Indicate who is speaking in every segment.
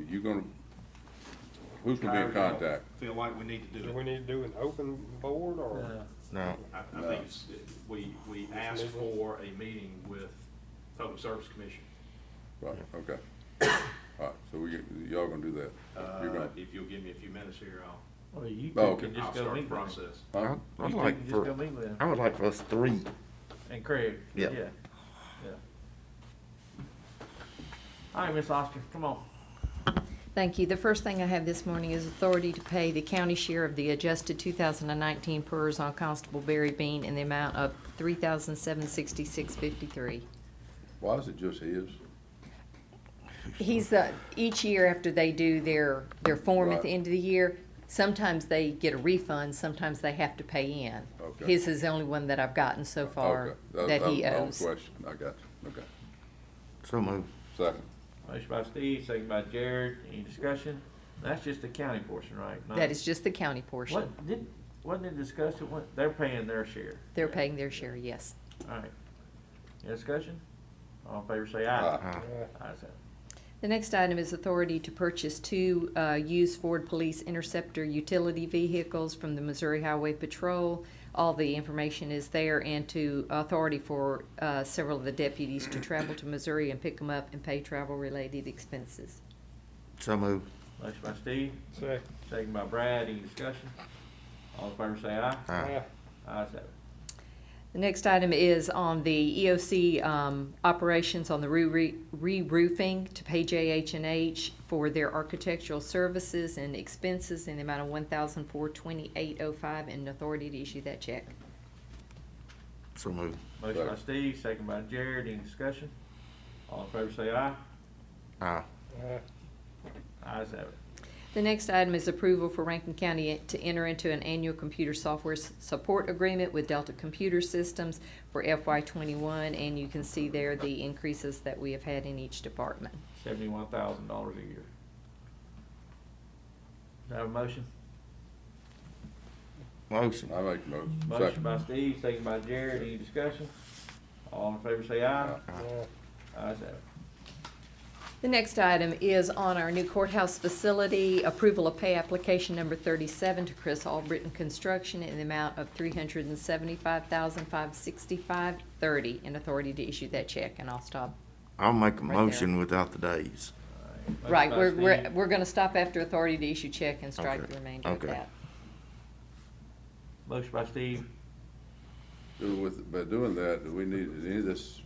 Speaker 1: you gonna, who's gonna be in
Speaker 2: However y'all
Speaker 1: contact?
Speaker 2: Feel like we need to do
Speaker 3: Do
Speaker 2: it.
Speaker 3: we need to do an open board
Speaker 4: Uh,
Speaker 3: or?
Speaker 5: No,
Speaker 2: I, I think it's, it- we, we asked for a meeting with Public Service Commission.
Speaker 1: Right, okay. All right, so we, y'all gonna do that? You're
Speaker 2: Uh,
Speaker 1: gonna-
Speaker 2: if you'll give me a few minutes here, I'll,
Speaker 4: Or you
Speaker 1: Oh,
Speaker 4: two
Speaker 1: okay.
Speaker 4: can just
Speaker 2: I'll
Speaker 4: go
Speaker 2: start the
Speaker 4: meet with him.
Speaker 2: process.
Speaker 5: I-
Speaker 4: You
Speaker 5: I'd
Speaker 4: two
Speaker 5: like
Speaker 4: can Just go
Speaker 5: for,
Speaker 4: meet with him.
Speaker 5: I would like for us three,
Speaker 4: And Craig.
Speaker 5: Yeah.
Speaker 4: Yeah. Yeah. All right, Miss Oster, come on.
Speaker 6: Thank you. The first thing I have this morning is authority to pay the county share of the adjusted 2019 PERS on Constable Barry Bean in the amount of 3766
Speaker 1: Why is it just his?
Speaker 6: He's, uh, each year after they do their, their form at the
Speaker 1: Right.
Speaker 6: end of the year, sometimes they get a refund, sometimes they have to pay in.
Speaker 1: Okay.
Speaker 6: His is the only one that I've gotten so far
Speaker 1: Okay,
Speaker 6: that
Speaker 1: was
Speaker 6: he
Speaker 1: my own
Speaker 6: owes.
Speaker 1: Question, I got you, okay.
Speaker 5: so move.
Speaker 1: Second,
Speaker 4: Motion by Steve, second by Jared. Any discussion? That's just the county portion, right? Not-
Speaker 6: That is just the county portion.
Speaker 4: What, did, wasn't it discussed, at what, they're paying their share?
Speaker 6: They're paying their share, yes.
Speaker 4: All right. Any discussion? All in favor, say aye.
Speaker 1: aye,
Speaker 3: Uh,
Speaker 4: Ayes have it.
Speaker 6: The next item is authority to purchase two uh, used Ford Police Interceptor utility vehicles from the Missouri Highway Patrol. All the information is there and to authority for uh, several of the deputies to travel to Missouri and pick them up and pay travel-related expenses.
Speaker 5: So move.
Speaker 4: Motion by Steve,
Speaker 3: Say,
Speaker 4: second by Brad. Any discussion? All in favor, say aye.
Speaker 3: ah,
Speaker 5: Aye.
Speaker 4: Ayes have it.
Speaker 6: The next item is on the EOC um, operations on the re- re- re-roofing to pay jh and H for their architectural services and expenses in the amount of one thousand four twenty-eight oh five and authority to issue that check.
Speaker 5: So move.
Speaker 4: Motion by Steve, second by Jared. Any discussion? All in favor, say aye.
Speaker 5: Aye.
Speaker 3: aye,
Speaker 4: Ayes have it.
Speaker 6: The next item is approval for Rankin County to enter into an annual computer software s- support agreement with Delta Computer Systems for FY twenty-one, and you can see there the increases that we have had in each department.
Speaker 4: Seventy-one thousand dollars a year. Do I have a motion?
Speaker 5: Motion.
Speaker 1: I make the motion.
Speaker 4: Motion
Speaker 1: Second.
Speaker 4: by Steve, second by Jared. Any discussion? All in favor, say aye.
Speaker 3: aye,
Speaker 4: Ayes have it.
Speaker 6: The next item is on our new courthouse facility, approval of pay application number thirty-seven to Chris Albritton Construction in the amount of three hundred and seventy-five thousand, five sixty-five, thirty, and authority to issue that check, and I'll stop.
Speaker 5: I'll make a
Speaker 6: Right there.
Speaker 5: motion without the days.
Speaker 4: All right. Motion
Speaker 6: Right,
Speaker 4: by
Speaker 6: we're, we're,
Speaker 4: Steve.
Speaker 6: we're gonna stop after authority to issue check and strike
Speaker 5: Okay,
Speaker 6: the remainder of
Speaker 5: okay.
Speaker 6: that.
Speaker 4: Motion by Steve,
Speaker 1: Do with, by doing that, do we need, does any of this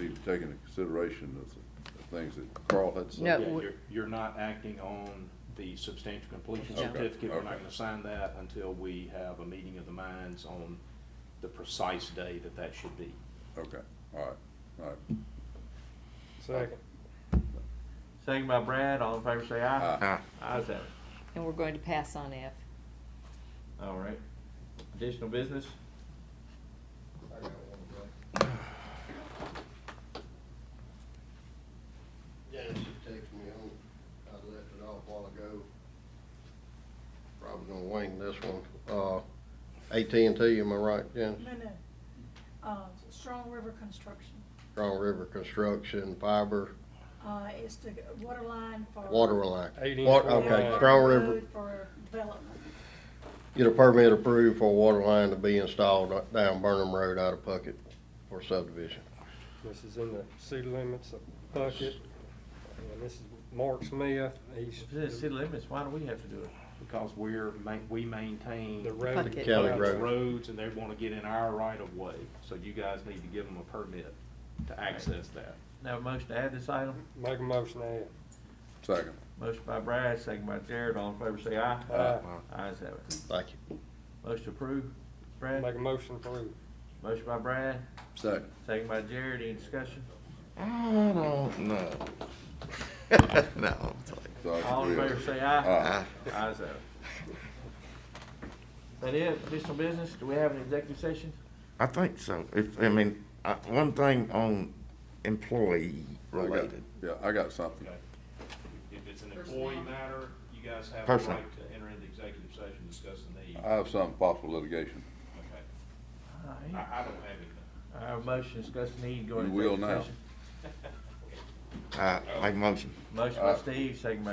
Speaker 1: need to take into consideration of the things that Carl had said?
Speaker 6: No,
Speaker 2: Yeah,
Speaker 6: we-
Speaker 2: You're, you're not acting on the substantial completion
Speaker 6: No. Okay,
Speaker 2: certificate. We're not
Speaker 1: okay.
Speaker 2: gonna sign that until we have a meeting of the minds on the precise day that that should be.
Speaker 1: Okay, all right, all right.
Speaker 3: second,
Speaker 4: second by Brad. All in favor, say aye.
Speaker 5: Aye.
Speaker 4: Ayes have it.
Speaker 6: And we're going to pass on F.
Speaker 4: All right. Additional business?
Speaker 7: Dennis just texted me home. I left it off a while ago. Probably gonna wing this one. Uh, AT&T, am I right, Dennis?
Speaker 8: No, no. Uh, Strong River Construction.
Speaker 7: Strong River Construction, fiber,
Speaker 8: Uh, it's the water line for.
Speaker 7: water line.
Speaker 3: Eighteen
Speaker 7: Wa-
Speaker 3: forty-nine.
Speaker 7: Okay,
Speaker 8: Water
Speaker 7: Strong River,
Speaker 8: road For development.
Speaker 7: get a permit approved for a water line to be installed down Burnham Road out of Puckett for subdivision.
Speaker 3: this is in the city limits of Bucket. And this is Mark Smith, he's
Speaker 4: If it's city limits, why do we have to do it?
Speaker 2: Because we're, ma- we maintain.
Speaker 3: the road.
Speaker 6: Bucket.
Speaker 7: County
Speaker 2: those
Speaker 7: road.
Speaker 2: Roads and they wanna get in our right of way, so you guys need to give them a permit to access that.
Speaker 4: Now, a motion to add this item?
Speaker 3: Make a motion, aye.
Speaker 1: Second,
Speaker 4: Motion by Brad, second by Jared. All in favor, say aye.
Speaker 3: Aye.
Speaker 4: Ayes have it.
Speaker 7: Thank you.
Speaker 4: Motion approved. Brad?
Speaker 3: Make a motion approved.
Speaker 4: Motion by Brad,
Speaker 1: second.
Speaker 4: second by Jared, any discussion?
Speaker 5: I don't know. No, I'm sorry.
Speaker 1: So I
Speaker 4: All in
Speaker 1: agree.
Speaker 4: favor, say aye.
Speaker 1: Aye.
Speaker 4: Ayes have it. That it, additional business, do we have an executive session?
Speaker 5: I think so. If, I mean, I, one thing on employee
Speaker 1: I got-
Speaker 5: related.
Speaker 1: Yeah, I got something.
Speaker 2: Okay. If it's an employee matter, you guys have the
Speaker 5: Personal.
Speaker 2: right to enter into executive session, and discuss the need.
Speaker 1: I have some possible litigation.
Speaker 2: Okay.
Speaker 4: All
Speaker 2: I,
Speaker 4: right.
Speaker 2: I don't have anything.
Speaker 4: Our motion, discuss need, go into
Speaker 1: You will
Speaker 4: executive session.
Speaker 5: Uh, make a motion.
Speaker 4: Motion by Steve, second by